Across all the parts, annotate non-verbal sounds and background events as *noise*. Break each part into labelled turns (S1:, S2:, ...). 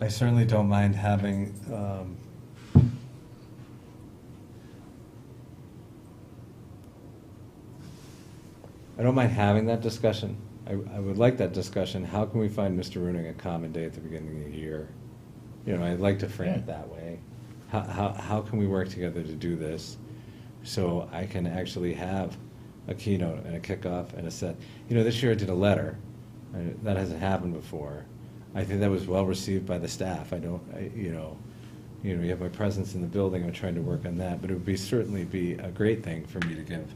S1: I certainly don't mind having, um, I don't mind having that discussion. I, I would like that discussion. How can we find Mr. Runing a common day at the beginning of the year? You know, I'd like to frame it
S2: Yeah.
S1: that way. How, how, how can we work together to do this? So I can actually have a keynote and a kickoff and a set. You know, this year I did a letter. I- That hasn't happened before. I think that was well received by the staff. I don't, I, you know, you know, you have my presence in the building. I'm trying to work on that, but it would be certainly be a great thing for me to give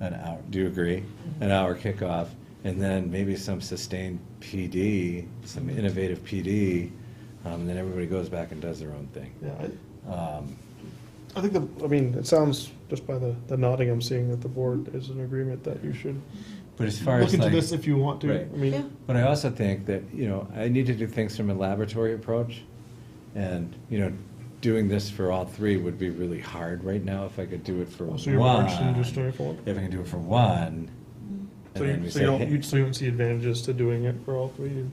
S1: an hour. Do you agree? An hour kickoff, and then maybe some sustained PD, some innovative PD, um, and then everybody goes back and does their own thing.
S3: Yeah, I-
S1: Um,
S3: I think the, I mean, it sounds, just by the, the nodding, I'm seeing that the board is in agreement that you should
S1: but as far
S3: look
S1: as
S3: into
S1: like,
S3: this if you want to.
S1: Right.
S3: I
S4: Yeah.
S3: mean,
S1: But I also think that, you know, I need to do things from a laboratory approach. And, you know, doing this for all three would be really hard right now if I could do it for
S3: so you're more interested in just
S1: one.
S3: doing it for one.
S1: If I can do it for one. and
S3: So
S1: then we
S3: you, so
S1: say,
S3: you don't,
S1: hey-
S3: you, so you don't see advantages to doing it for all three,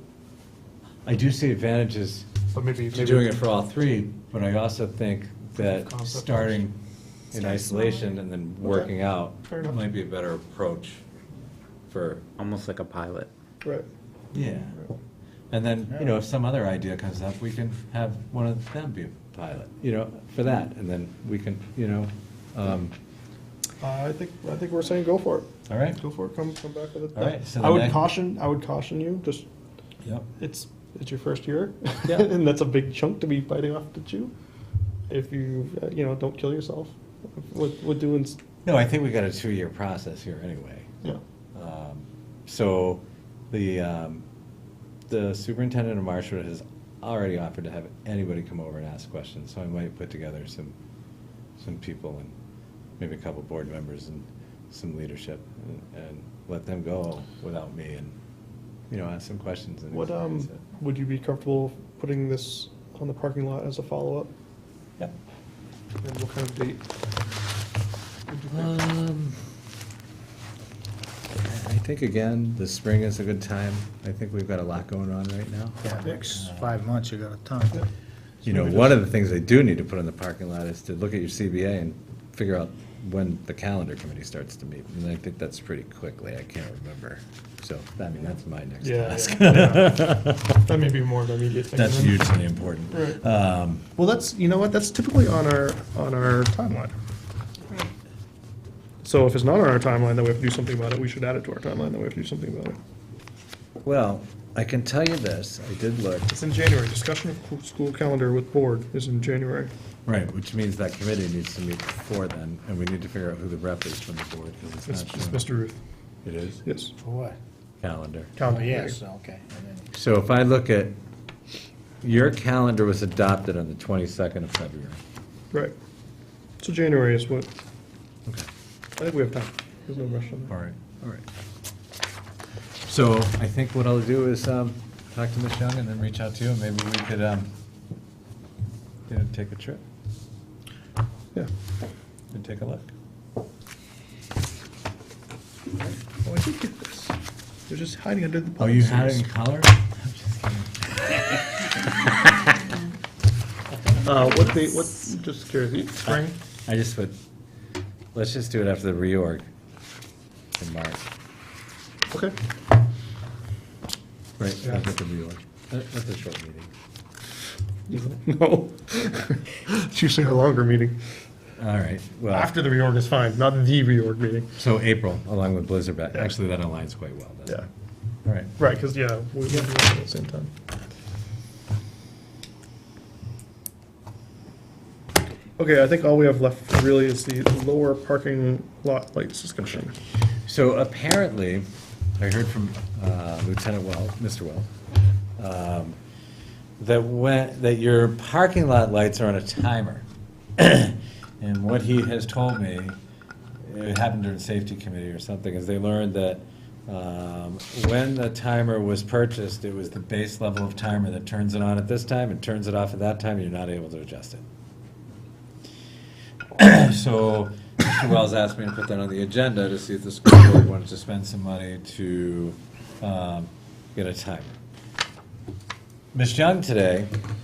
S1: I do see advantages
S3: but maybe.
S1: to doing it for all three, but I also think that
S3: Concept first.
S1: starting in
S4: Start
S1: isolation
S4: smaller.
S1: and then
S3: Okay.
S1: working out
S3: Fair enough.
S1: might be a better approach for
S5: Almost like a pilot. *laughs*
S3: Right.
S1: Yeah. And then, you know, if some other idea comes up, we can have one of them be a pilot, you know, for that, and then we can, you know, um,
S3: Uh, I think, I think we're saying go for it.
S1: all right?
S3: Go for it, come, come back with it.
S1: All right, so
S3: I
S1: the
S3: would
S1: next-
S3: caution, I would caution you, just,
S1: Yep.
S3: it's, it's your first year.
S1: Yeah.
S3: *laughs* And that's a big chunk to be biting off to chew. If you, uh, you know, don't kill yourself with, with doing, s-
S1: No, I think we got a two-year process here anyway.
S3: yeah.
S1: Um, So the, um, the superintendent of Marshwood has already offered to have anybody come over and ask questions, so I might put together some, some people and maybe a couple board members and some leadership and- and let them go without me and, you know, ask some questions and
S3: What, um,
S1: experience it.
S3: would you be comfortable putting this on the parking lot as a follow-up?
S1: Yep.
S3: And what kind of date? would you think?
S1: Um, I I think again, the spring is a good time. I think we've got a lot going on right now.
S2: Yeah, next five months, you got a ton.
S3: Yeah.
S1: You know,
S3: Maybe
S1: one of the things they do need to put in the parking lot is to look at your CBA and figure out when the calendar committee starts to meet. And I think that's pretty quickly, I can't remember. So, I mean, that's my next
S3: Yeah,
S1: task. *laughs*
S3: That may be more of an immediate thing.
S1: Uh, That's
S3: than-
S1: hugely important.
S3: Right.
S1: Um,
S2: Well, that's, you know what, that's typically on our, on our timeline.
S4: Right.
S3: So if it's not on our timeline, then we have to do something about it. We should add it to our timeline, then we have to do something about it.
S1: Well, I can tell you this, I did look.
S3: It's in January. Discussion of cl- school calendar with board is in January.
S1: Right, which means that committee needs to meet before then, and we need to figure out who the rep is from the board, because
S3: It's,
S1: it's
S3: it's
S1: not shown.
S3: Mr. Ruth.
S1: It is?
S3: Yes.
S2: For what?
S1: Calendar.
S2: Calendar, yes, okay. and then-
S1: So if I look at, your calendar was adopted on the 22nd of February.
S3: Right. So January is what,
S1: Okay.
S3: I think we have time. There's no rush on
S1: All
S3: that.
S1: right, all right. So I think what I'll do is um, talk to Ms. Young and then reach out to you, and maybe we could, um, you know, take a trip
S3: Yeah.
S1: and take a look.
S3: Oh, I did get this. They're just hiding under the.
S1: Oh, you
S3: policies.
S1: had it in color?
S3: Uh, what date, what, just curious, spring?
S1: I just would, let's just do it after the reorg in March,
S3: Okay.
S1: right, after the reorg. That- That's a short meeting.
S3: *laughs* No. *laughs* It's usually a longer meeting.
S1: All right, well,
S3: After the reorg is fine, not the reorg meeting.
S1: so April, along with Blizzard, back.
S3: Yeah.
S1: actually, that aligns quite well, doesn't it? All right.
S3: Right, because, yeah, we, we do it at the same time. Okay, I think all we have left really is the lower parking lot lights discussion.
S1: So apparently, I heard from uh, Lieutenant Well, Mr. Well, um, that when, that your parking lot lights are on a timer. *clears throat* And what he has told me, it happened during safety committee or something, is they learned that um, when the timer was purchased, it was the base level of timer that turns it on at this time and turns it off at that time, and you're not able to adjust it. So, Mr. Wells asked me to put that on the agenda to see if the school board wanted to spend some money to um, get a timer. Ms. Young today